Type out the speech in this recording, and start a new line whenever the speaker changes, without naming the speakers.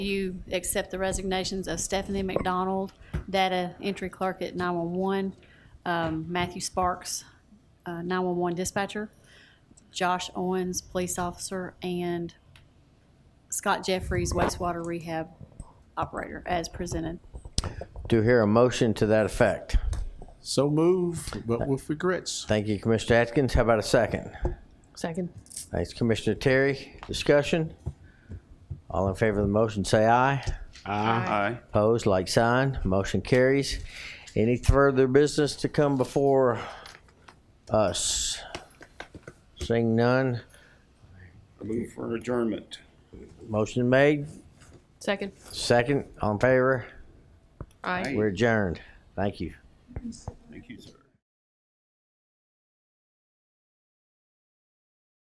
You accept the resignations of Stephanie McDonald, data entry clerk at 911, um, Matthew Sparks, uh, 911 dispatcher, Josh Owens, police officer, and Scott Jeffries, wastewater rehab operator, as presented.
Do hear a motion to that effect.
So moved, but with regrets.
Thank you, Commissioner Atkins. How about a second?
Second.
Thanks, Commissioner Terry. Discussion? All in favor of the motion, say aye.
Aye.
Opposed, like sign. Motion carries. Any further business to come before us? Seeing none,
Move for adjournment.
motion made.
Second.
Second, all in favor?
Aye.
We're adjourned. Thank you.
Thank you, sir.